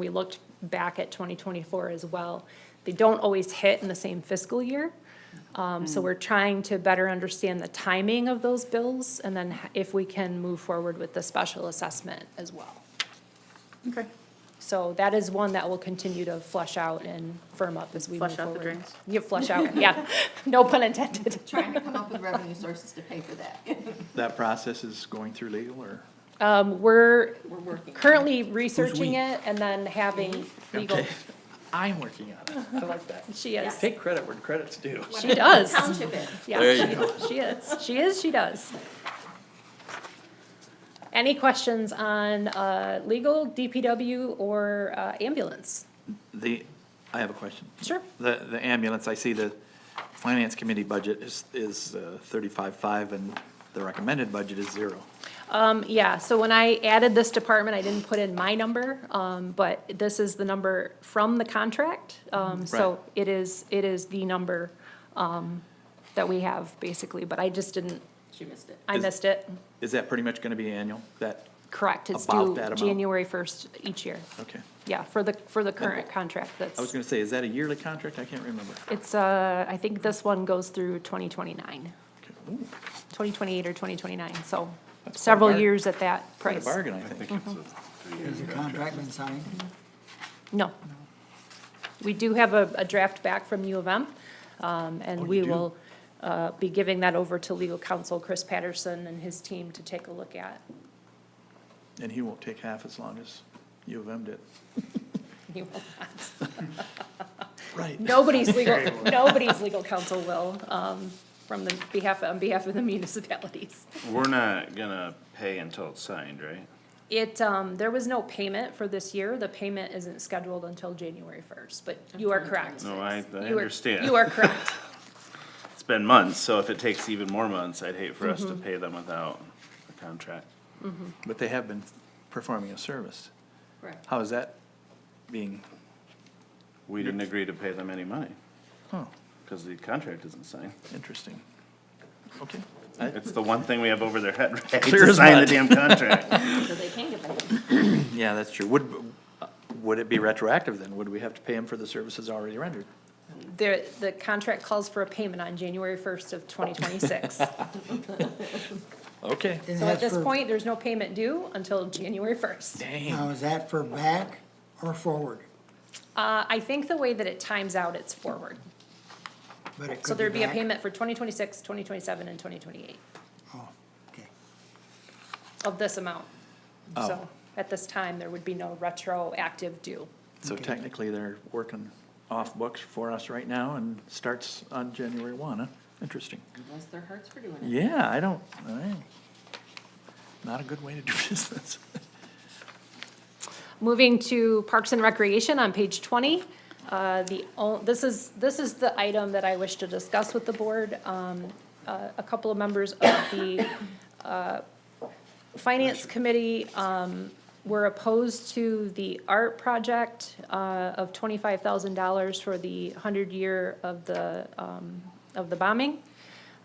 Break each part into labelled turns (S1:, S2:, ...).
S1: we looked back at twenty twenty-four as well. They don't always hit in the same fiscal year. Um,
S2: Mm.
S1: so we're trying to better understand the timing of those bills and then h- if we can move forward with the special assessment as well.
S2: Okay.
S1: So that is one that will continue to flush out and firm up as we move
S2: Flush out the
S1: forward.
S2: drains.
S1: Yeah, flush out, yeah, no pun intended.
S3: trying to come up with revenue sources to pay for that.
S4: That process is going through legal or?
S1: Um, we're
S3: We're working.
S1: currently researching
S4: we?
S1: it and then having legal,
S4: Okay. I'm working on it. I like that.
S1: she is,
S4: Take credit where credit's due.
S1: she does.
S3: Township is.
S5: There
S1: Yeah,
S5: you go.
S1: she is, she is, she does. Any questions on, uh, legal, DPW, or, uh, ambulance?
S4: The, I have a question.
S1: Sure.
S4: The, the ambulance, I see the finance committee budget is, is thirty-five-five and the recommended budget is zero.
S1: Um, yeah, so when I added this department, I didn't put in my number, um, but this is the number from the contract. Um,
S4: Right.
S1: so it is, it is the number, um, that we have, basically, but I just didn't,
S3: She missed it.
S1: I
S4: Is-
S1: missed it.
S4: Is that pretty much gonna be annual? That,
S1: Correct, it's
S4: About
S1: due
S4: that amount.
S1: January first each year.
S4: okay.
S1: Yeah, for the, for the current contract that's.
S4: I was gonna say, is that a yearly contract? I can't remember.
S1: It's, uh, I think this one goes through 2029, 2028
S4: Okay. Ooh,
S1: or twenty twenty-nine, so several
S4: bargain.
S1: years at that
S4: Quite a
S1: price.
S4: bargain, I
S5: I
S4: think.
S5: think it's a three-year
S6: Has the
S5: contract.
S6: contract been signed?
S1: No. We do have a, a draft back from U of M, um,
S4: Oh,
S1: and
S4: you
S1: we
S4: do?
S1: will, uh, be giving that over to legal counsel Chris Patterson and his team to take a look at.
S4: And he won't take half as long as U of M did.
S1: You will not.
S4: Right.
S1: Nobody's legal, nobody's legal counsel will, um, from the behalf, on behalf of the municipalities.
S5: We're not gonna pay until it's signed, right?
S1: It, um, there was no payment for this year. The payment isn't scheduled until January first, but you are correct.
S5: No, I, I
S1: You are-
S5: understand.
S1: You are correct.
S5: It's been months, so if it takes even more months, I'd hate for us
S1: Mm-hmm.
S5: to pay them without a contract.
S4: But they have been performing a service.
S3: Correct.
S4: How is that being,
S5: We didn't agree to pay them any money,
S4: oh,
S5: cause the contract isn't signed.
S4: interesting. Okay. I-
S5: It's the one thing we have over their head, right?
S4: Clear
S5: To
S4: as
S5: sign the
S4: mud.
S5: damn contract.
S3: So they can get paid.
S4: Yeah, that's true. Would, would it be retroactive then? Would we have to pay him for the services already rendered?
S1: The, the contract calls for a payment on January first of twenty twenty-six. So
S4: Okay.
S6: And
S1: at
S6: that's
S1: this
S6: for-
S1: point, there's no payment due until January first.
S4: Dang.
S6: Now, is that for back or forward?
S1: Uh, I think the way that it times out, it's forward.
S6: But it
S1: So
S6: could
S1: there'd be a
S6: back.
S1: payment for 2026, 2027, and twenty twenty-eight
S6: Oh, okay.
S1: of this amount.
S4: Oh.
S1: So at this time, there would be no retroactive due.
S4: So technically, they're working off books for us right now and starts on January one, huh? Interesting.
S3: Unless their hearts for doing it.
S4: Yeah, I don't, I, not a good way to do business.
S1: Moving to Parks and Recreation on page twenty, uh, the, o- this is, this is the item that I wish to discuss with the board. Um, uh, a couple of members of the, uh, Finance Committee, um, were opposed to the art project, uh, of twenty-five thousand dollars for the hundred year of the, um, of the bombing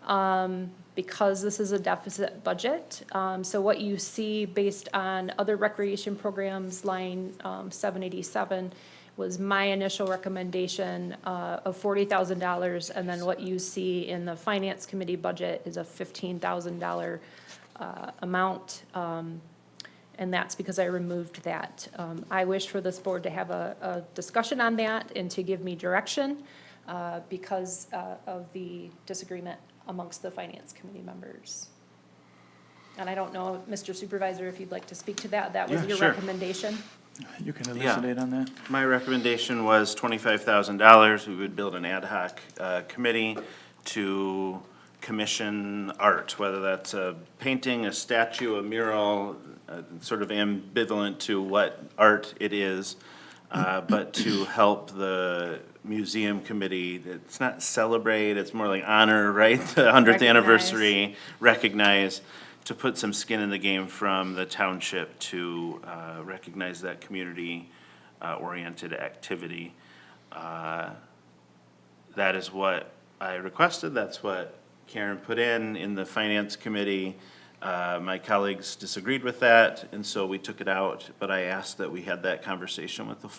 S1: um, because this is a deficit budget. Um, so what you see based on other recreation programs, line, um, seven eighty-seven was my initial recommendation, uh, of forty thousand dollars. And then what you see in the finance committee budget is a fifteen thousand dollar, uh, amount. Um, and that's because I removed that. Um, I wish for this board to have a, a discussion on that and to give me direction, uh, because, uh, of the disagreement amongst the finance committee members. And I don't know, Mr. Supervisor, if you'd like to speak to that, that was
S5: Yeah,
S1: your
S5: sure.
S1: recommendation?
S4: You can
S5: Yeah.
S4: elucidate on that?
S5: My recommendation was twenty-five thousand dollars. We would build an ad hoc uh, committee to commission art, whether that's a painting, a statue, a mural, uh, sort of ambivalent to what art it is, uh, but to help the museum committee, it's not celebrate, it's more like honor, right? The hundredth
S1: Recognize.
S5: anniversary, recognize, to put some skin in the game from the township to uh, recognize that community uh, oriented activity. Uh, That is what I requested, that's what Karen put in, in the finance committee. Uh, My colleagues disagreed with that, and so we took it out, but I asked that we had that conversation with the